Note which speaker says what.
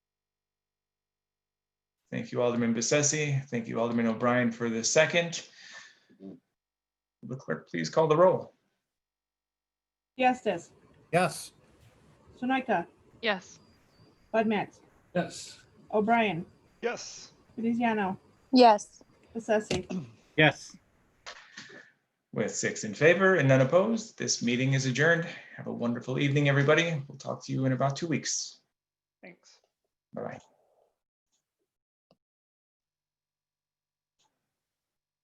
Speaker 1: Thank you, Alderman Bessetti. Thank you, Alderman O'Brien, for the second. Will The clerk, please call the roll.
Speaker 2: Diastis,
Speaker 3: Yes.
Speaker 2: Sunoika,
Speaker 4: Yes.
Speaker 2: Bud Matts,
Speaker 3: Yes.
Speaker 2: O'Brien,
Speaker 5: Yes.
Speaker 2: Veneziano,
Speaker 6: yes,
Speaker 2: Bessesi.
Speaker 3: Yes.
Speaker 1: With six in favor and none opposed, this meeting is adjourned. Have a wonderful evening, everybody. We'll talk to you in about two weeks.
Speaker 5: Thanks.
Speaker 1: Bye-bye.